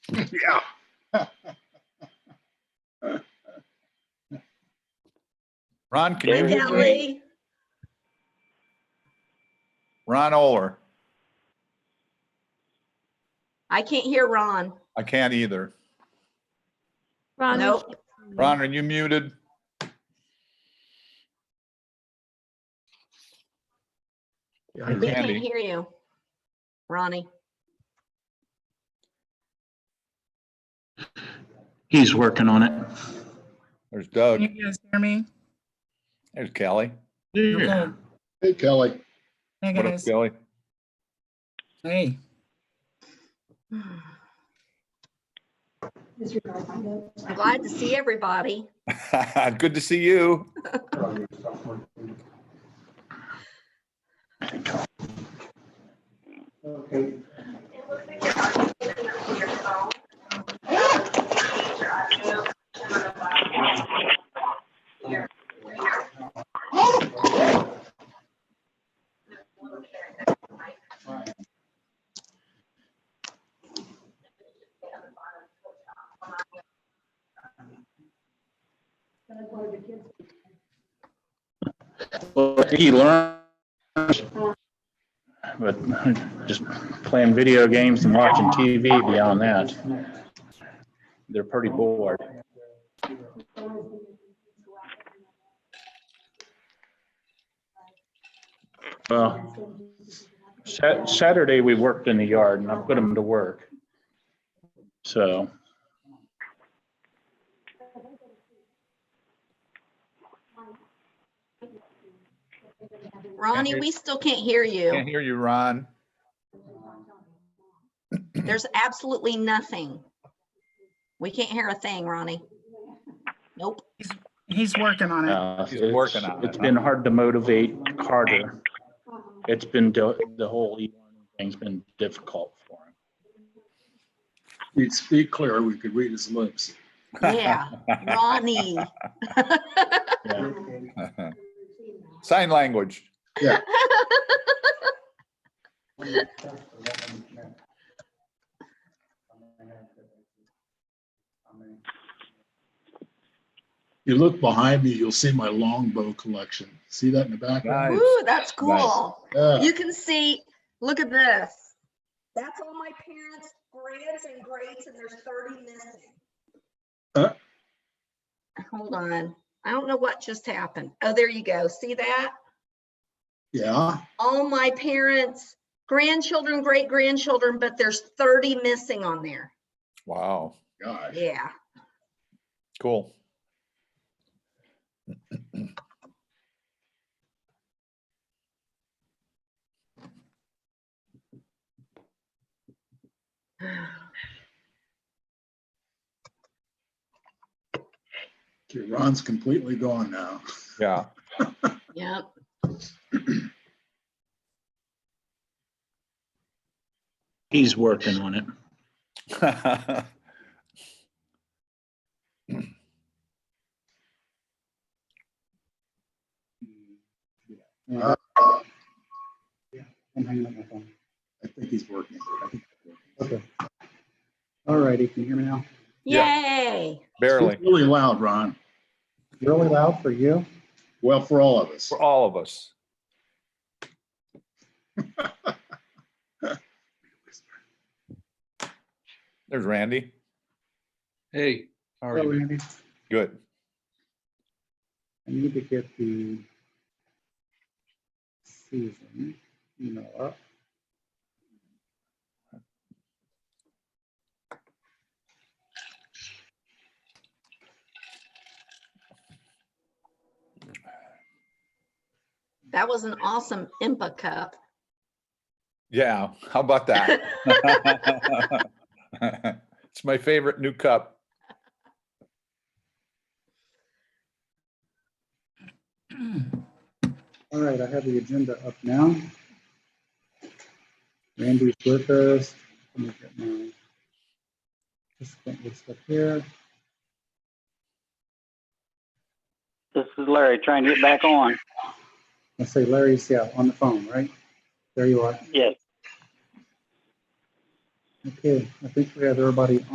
Ron, can you, Kelly, Ron Oler? I can't hear Ron. I can't either. Ron, we Nope. can't- Ron, are you muted? I We can't Andy. hear you. Ronnie, He's working on it. There's Can Doug, you guys hear me? there's Kelly. Yeah. Hey, Kelly. Hey, What up, guys. Kelly? Hey. I'm glad to see everybody. Good to see you. Well, He learned. But just playing video games and watching TV beyond that. They're pretty bored. Well, Sa- Saturday, we worked in the yard and I put them to work. So. Ronnie, hear- we still can't hear Can't you. hear you, Ron. There's absolutely nothing. We can't hear a thing, Ronnie. Nope. He's working on it. Uh, He's It's working on it, It's been hard to motivate Carter. It's been, do- the whole e-learning thing's been difficult for him. He'd speak clear, we could read his lips. Yeah, Ronnie. Yeah. Sign language. You look behind me, you'll see my longbow collection. See that in the background? Nice. Ooh, that's cool. Yeah, You can see, look at this. That's all my parents' grands and greats, and there's thirty missing. Huh? Hold on, I don't know what just happened. Oh, there you go. See that? yeah, All my parents' grandchildren, great grandchildren, but there's thirty missing on there. Wow, gosh. Yeah, cool. Okay, Ron's completely gone now. Yeah, yep. He's working on it. Uh, I think he's working. All righty, can you hear me now? Yay. barely, It's Really loud, Ron. Really loud for you? Well, for all of us. for all of us. There's Randy. Hey, how are Hello, you? Andy. Good. I need to get the season email up. That was an awesome IMPA cup. Yeah, how about that? It's my favorite new cup. All right, I have the agenda up now. Randy's with us. Let me get my participant list up here. This is Larry trying to get back on. I say Larry's, yeah, on the phone, right? There you are. Yes. Okay, I think we have everybody